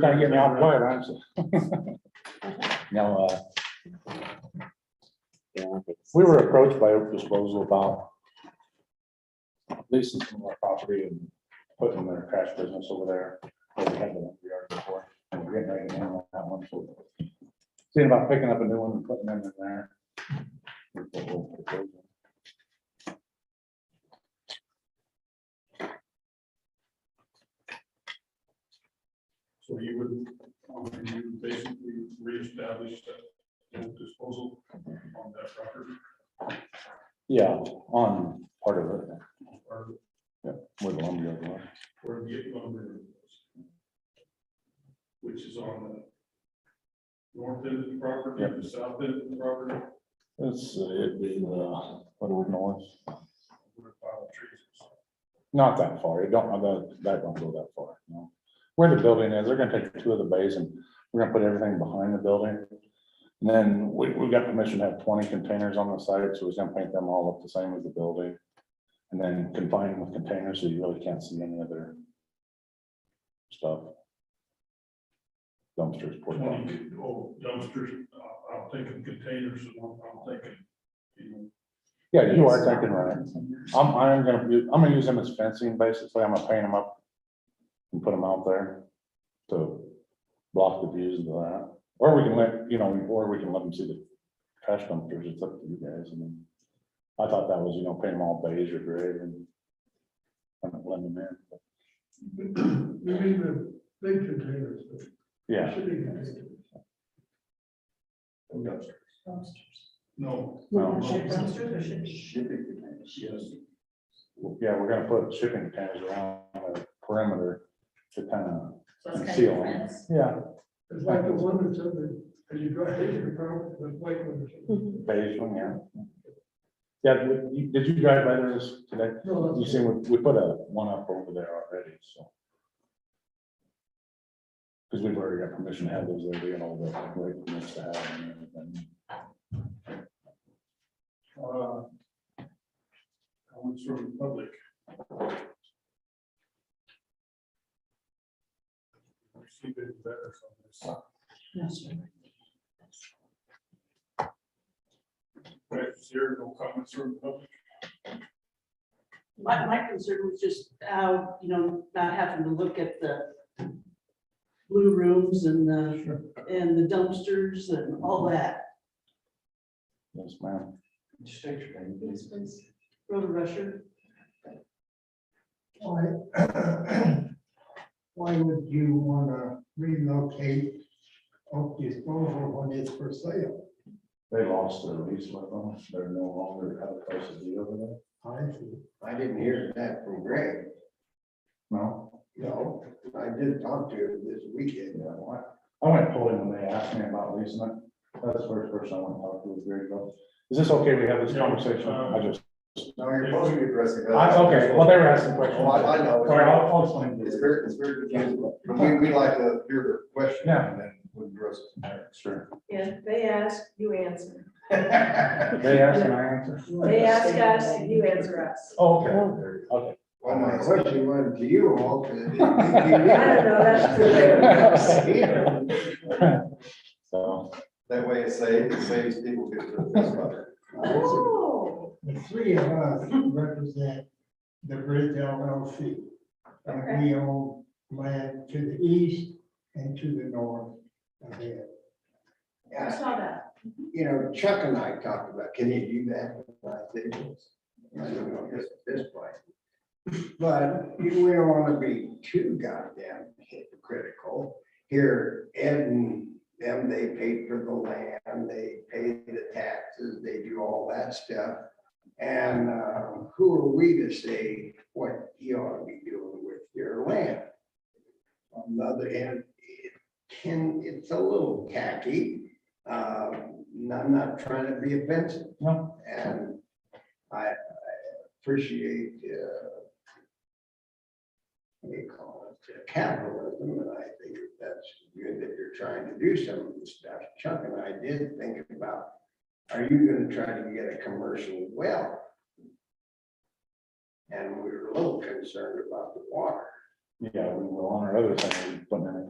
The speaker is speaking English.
Gotta get me out of the way, right? Now, uh, we were approached by Oak Disposal about leasing some of our property and putting their trash business over there. where We had the one we already before, and we're getting ready to handle that one, so. Seeing about picking up a new one and putting them in there. So you would, um, you basically reestablish that old disposal on that property Yeah, on part of it, or where the lumberyard was. where the lumber is. Which is on the north end of the property, Yep. the south end of the property, It's, it'd be, uh, what do we know? It's where the pile of trees is. Not that far, it don't, that, that don't go that far, no. Where the building is, they're gonna take two of the bays and we're gonna put everything behind the building. And then we, we got permission to have twenty containers on the site, so we're gonna paint them all up the same as the building. And then confine them with containers, so you really can't see any other stuff. Dumpsters, porta potties. Twenty old dumpsters, uh, I'm thinking containers, and I'm I'm thinking, you know, yeah, you are thinking right. I'm, I'm gonna, u- I'm gonna use them as fencing, basically, I'm gonna paint them up and put them out there to block the views of that, or we can let, you know, or we can let them see the trash dumpsters, it's up to you guys, I mean. I thought that was, you know, paint them all beige or gray and kind of blend them in, but, You mean the big containers? the yeah. shitty containers. dumpsters. No, No. yes, Yeah, we're gonna put shipping containers around the perimeter to kind of, So it's kind of Seal. different. yeah, It's like the one that's in the, as you drive into the car, the white one. beige one, yeah. Yeah, did you- did you drive by there this- today? No, You that's- see, we, we put a one up over there already, so. Because we've already got permission to have those there, we got all the right permits to have and everything. uh, comments from the public. Receive it better from this. Right, zero, no comments from the public. My, my concern was just how, you know, not having to look at the blue rooms and the, and the dumpsters and all that. Yes, ma'am. Road rusher, Why why would you want to relocate Oh, oak disposal when it's for sale? They lost their lease with them, they're no longer have a place to be over there. I see. I didn't hear that from Greg. No, No, I did talk to him this weekend. yeah, why? I went polling when they asked me about leasing it. That's the first person I went to talk to was Gary Bill. Is this okay? We have this conversation? I just, No, you're supposed to be addressing. I, okay, well, they were asking questions. Oh, I, I Sorry, know. I'll, I'll explain. It's very, it's very confusing. But We, we like to hear the question. Yeah. And then we address it. Sure. Yeah, they ask, you answer. They asked and I answered. They ask us, you answer us. Oh, Okay, okay. Well, my question went to you all. 'cause it didn't Oh. I don't know, that's make you the real. So, That way it saves, it saves people get to this level. Oh, The three of us represent the Bridge LLC. And we own land to the east and to the north of it. I Yeah, saw that. you know, Chuck and I talked about, can you do that? And I think, I don't know, just at this point. But you we don't want to be too goddamn hypocritical. Here, Ed and them, they paid for the land, they paid the taxes, they do all that stuff. And uh, who are we to say what you ought to be doing with your land? On the other hand, it can, it's a little tacky. Um, and I'm not trying to be offensive. No. And I I appreciate, uh, what do you call it, capitalism, and I think that's good that you're trying to do some of this stuff. Chuck and I did think about, are you gonna try to get a commercial well? And we were a little concerned about the water. yeah, we will on our other thing, we're putting in a